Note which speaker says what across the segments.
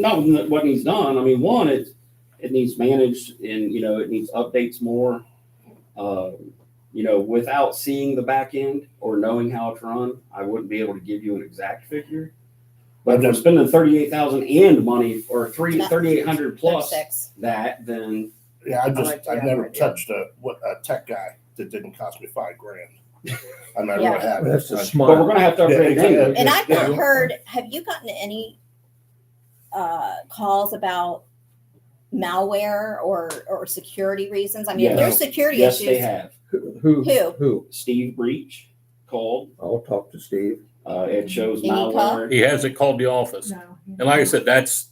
Speaker 1: not with what needs done. I mean, one, it it needs managed and you know it needs updates more. Um, you know, without seeing the back end or knowing how it's run, I wouldn't be able to give you an exact figure. But if I'm spending thirty-eight thousand and money or three
Speaker 2: Not-
Speaker 1: thirty-eight hundred plus
Speaker 2: Thirty-six.
Speaker 1: that, then
Speaker 3: Yeah, I
Speaker 2: like
Speaker 3: just,
Speaker 2: the
Speaker 3: I've never
Speaker 2: idea.
Speaker 3: touched a, what, a tech guy that didn't cost me five grand. I never
Speaker 2: Yeah.
Speaker 3: would have.
Speaker 4: That's a
Speaker 5: Uh,
Speaker 3: I-
Speaker 1: but we're
Speaker 4: smart.
Speaker 1: gonna have to
Speaker 3: Yeah,
Speaker 1: upgrade it
Speaker 3: exactly.
Speaker 1: anyway.
Speaker 2: And I've not
Speaker 3: Yeah.
Speaker 2: heard, have you gotten any uh, calls about malware or, or security reasons? I mean, if there's security
Speaker 1: Yes, they
Speaker 2: issues,
Speaker 1: have.
Speaker 4: Who, who?
Speaker 2: Who?
Speaker 4: Who?
Speaker 1: Steve Breach called.
Speaker 4: I'll talk to Steve.
Speaker 1: Uh, it shows
Speaker 2: Did he call?
Speaker 1: malware.
Speaker 5: He hasn't called the office.
Speaker 6: No.
Speaker 5: And like I said, that's,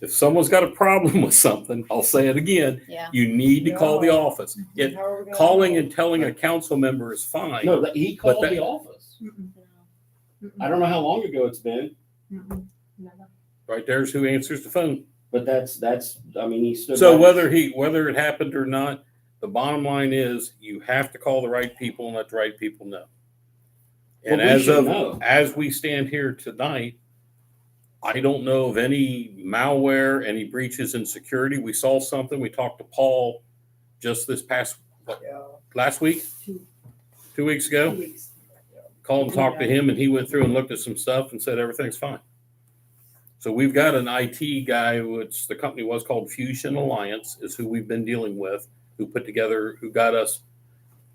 Speaker 5: if someone's got a problem with something, I'll say it again,
Speaker 2: yeah.
Speaker 5: you need to call the office. It,
Speaker 6: How are we gonna-
Speaker 5: calling and telling a council member is fine.
Speaker 1: No, that- he called
Speaker 5: that-
Speaker 1: the office.
Speaker 6: Mm-mm,
Speaker 1: I don't know how long ago it's been.
Speaker 6: mm-mm, never.
Speaker 5: Right there's who answers the phone.
Speaker 1: But that's that's I mean he stood.
Speaker 5: So
Speaker 1: by-
Speaker 5: whether he, whether it happened or not, the bottom line is you have to call the right people and let the right people know.
Speaker 1: Well,
Speaker 5: And
Speaker 1: we
Speaker 5: as
Speaker 1: should
Speaker 5: of,
Speaker 1: know.
Speaker 5: as we stand here tonight, I don't know of any malware, any breaches in security. We saw something. We talked to Paul just this past, what, last week?
Speaker 6: Two.
Speaker 5: Two weeks
Speaker 6: Two
Speaker 5: ago?
Speaker 6: weeks.
Speaker 5: Called and talked to him and he went through and looked at some stuff and said, everything's fine. So we've got an IT guy, which the company was called Fusion Alliance is who we've been dealing with, who put together, who got us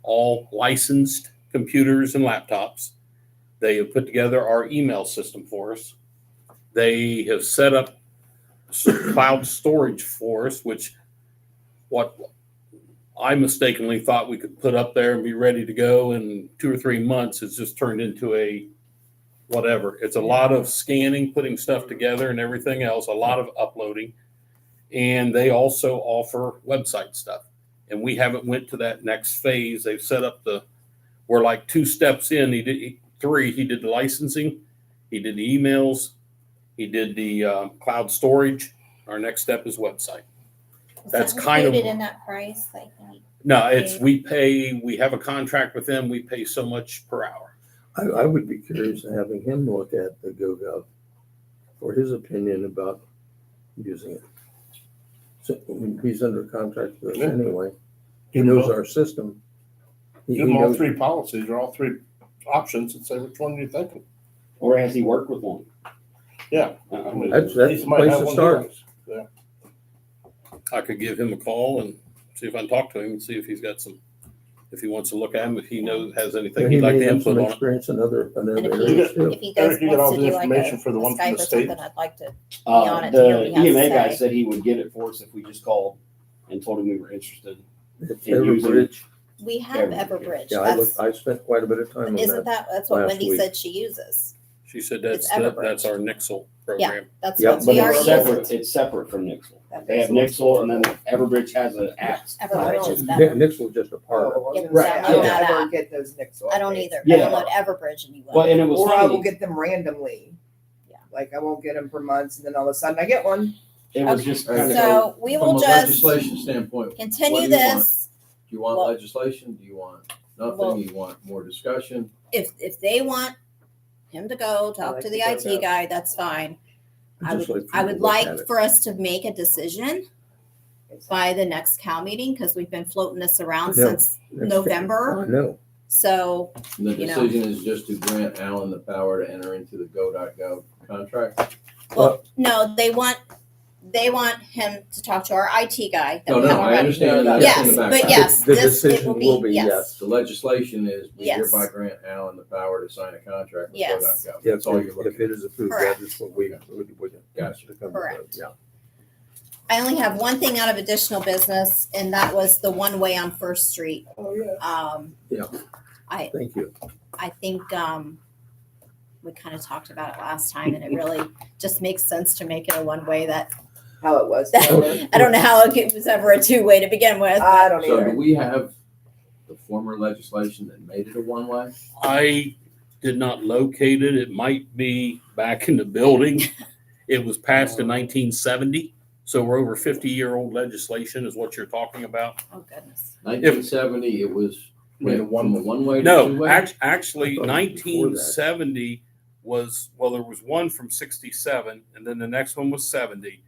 Speaker 5: all licensed computers and laptops. They have put together our email system for us. They have set up s- cloud storage for us, which what I mistakenly thought we could put up there and be ready to go in two or three months. It's just turned into a whatever. It's a lot of scanning, putting stuff together and everything else, a lot of uploading. And they also offer website stuff. And we haven't went to that next phase. They've set up the, we're like two steps in. He did he- three. He did the licensing. He did the emails. He did the uh, cloud storage. Our next step is website.
Speaker 2: Was
Speaker 5: That's
Speaker 2: that
Speaker 5: kind of-
Speaker 2: included in that price, like, you-
Speaker 5: No, it's,
Speaker 2: Okay.
Speaker 5: we pay, we have a contract with them, we pay so much per hour.
Speaker 4: I, I would be curious in having him look at the GoGov for his opinion about using it. So I mean, he's under contract with us anyway. He
Speaker 3: Give them
Speaker 4: knows
Speaker 3: all-
Speaker 4: our system. He-
Speaker 3: give
Speaker 4: he
Speaker 3: them all
Speaker 4: knows-
Speaker 3: three policies or all three options and say, which one do you think?
Speaker 1: or has he worked with one?
Speaker 3: Yeah.
Speaker 1: Uh,
Speaker 4: That's, that's
Speaker 3: These
Speaker 4: the
Speaker 3: might
Speaker 4: place
Speaker 3: have
Speaker 4: to
Speaker 3: one
Speaker 4: start.
Speaker 3: difference.
Speaker 5: I could give him a call and see if I can talk to him and see if he's got some, if he wants to look at him, if he knows, has anything
Speaker 4: And he
Speaker 5: he'd like
Speaker 4: may
Speaker 5: to
Speaker 4: have
Speaker 5: input
Speaker 4: some
Speaker 5: on it.
Speaker 4: experience in other, in
Speaker 2: And
Speaker 4: other
Speaker 2: if he,
Speaker 4: areas too.
Speaker 2: if he goes,
Speaker 3: Eric, you got all
Speaker 2: wants to
Speaker 3: the
Speaker 2: do like a a
Speaker 3: information for the one from
Speaker 2: Skype or
Speaker 3: the state?
Speaker 2: something, I'd like to,
Speaker 1: uh,
Speaker 2: be on it, tell
Speaker 1: the
Speaker 2: me how to
Speaker 1: EMA guy
Speaker 2: say.
Speaker 1: said he would get it for us if we just called and told him we were interested.
Speaker 4: It's
Speaker 1: in using it.
Speaker 4: Everbridge.
Speaker 2: we have
Speaker 1: Everbridge.
Speaker 2: Everbridge.
Speaker 4: Yeah, I looked,
Speaker 2: That's,
Speaker 4: I spent quite a bit of time on
Speaker 2: isn't
Speaker 4: that.
Speaker 2: that, that's what
Speaker 4: last
Speaker 2: Wendy
Speaker 4: week.
Speaker 2: said she uses.
Speaker 5: She said that's,
Speaker 2: It's
Speaker 5: the-
Speaker 2: Everbridge.
Speaker 5: that's our Nixel program.
Speaker 2: That's
Speaker 4: Yeah,
Speaker 2: what
Speaker 1: But
Speaker 2: we are
Speaker 1: it's
Speaker 2: using.
Speaker 1: separate. It's separate from Nixel.
Speaker 2: That
Speaker 1: They have
Speaker 2: makes-
Speaker 1: Nixel, and then Everbridge has an app.
Speaker 2: Everbridge is
Speaker 4: Nick-
Speaker 2: better.
Speaker 4: Nixel just a part of
Speaker 2: Get them
Speaker 7: Right, I
Speaker 2: downloaded
Speaker 7: don't, I
Speaker 2: out.
Speaker 7: don't get those Nixel.
Speaker 2: I don't either. I
Speaker 1: Yeah.
Speaker 2: download Everbridge and you will.
Speaker 1: Well, and it was
Speaker 7: Or I will
Speaker 1: funny.
Speaker 7: get them randomly.
Speaker 2: Yeah.
Speaker 7: Like I won't get them for months and then all of a sudden I get one.
Speaker 1: It was
Speaker 2: Okay.
Speaker 1: just kind of.
Speaker 2: So we
Speaker 8: From
Speaker 2: will
Speaker 8: a
Speaker 2: just
Speaker 8: legislation standpoint, do
Speaker 2: continue
Speaker 8: you want?
Speaker 2: this.
Speaker 8: you want
Speaker 2: Well-
Speaker 8: legislation? Do you want
Speaker 2: Well-
Speaker 8: nothing? You want more discussion?
Speaker 2: if if they want him to go talk
Speaker 7: like
Speaker 2: to
Speaker 7: to
Speaker 2: the
Speaker 7: go
Speaker 2: IT
Speaker 7: now.
Speaker 2: guy, that's fine. I
Speaker 4: Just
Speaker 2: would
Speaker 4: let
Speaker 2: I
Speaker 4: people
Speaker 2: would
Speaker 4: look
Speaker 2: like
Speaker 4: at it.
Speaker 2: for us to make a decision by the next cow meeting because we've been floating this around
Speaker 4: Yeah.
Speaker 2: since
Speaker 4: it.
Speaker 2: November.
Speaker 4: I know.
Speaker 2: So
Speaker 8: And the
Speaker 2: You know.
Speaker 8: decision is just to grant Allen the power to enter into the go.gov contract?
Speaker 2: well, no, they want they want him to talk to our IT guy. that
Speaker 8: No,
Speaker 2: we
Speaker 8: no,
Speaker 2: have
Speaker 8: I
Speaker 2: already.
Speaker 8: understand.
Speaker 7: Yeah.
Speaker 8: that.
Speaker 2: Yes,
Speaker 8: That's in the
Speaker 2: but
Speaker 8: background.
Speaker 2: yes,
Speaker 4: The
Speaker 2: this it will
Speaker 4: decision will
Speaker 2: be
Speaker 4: be
Speaker 2: yes.
Speaker 8: The legislation is we
Speaker 2: Yes.
Speaker 8: hereby grant Allen the power to sign a contract with
Speaker 2: Yes.
Speaker 8: go.gov.
Speaker 4: Yeah,
Speaker 8: That's
Speaker 4: if
Speaker 8: all you're
Speaker 4: it- if
Speaker 8: looking
Speaker 4: it is approved,
Speaker 2: Correct.
Speaker 4: that is what we, we, we.
Speaker 8: Gotcha.
Speaker 4: to come to,
Speaker 2: Correct.
Speaker 4: Yeah.
Speaker 2: I only have one thing out of additional business, and that was the one way on First Street.
Speaker 7: Oh, yeah.
Speaker 2: Um,
Speaker 4: Yeah.
Speaker 2: I
Speaker 4: Thank you.
Speaker 2: I think um, we kind of talked about it last time, and it really just makes sense to make it a one way. That
Speaker 7: How it was.
Speaker 4: Oh.
Speaker 2: I don't know how it was ever a two way to begin with.
Speaker 7: I
Speaker 8: for.
Speaker 7: don't
Speaker 8: So do
Speaker 7: either.
Speaker 8: we have the former legislation that made it a one-way?
Speaker 5: I did not locate it. It might be back in the building. It was passed in nineteen seventy, so we're over fifty-year-old legislation is what you're talking about.
Speaker 2: oh goodness!
Speaker 8: Nineteen seventy, it was
Speaker 3: Made a
Speaker 8: went from a one-way to two-way?
Speaker 5: No, act- actually,
Speaker 4: I thought it was before that.
Speaker 5: nineteen seventy was, well, there was one from sixty-seven and then the next one was seventy.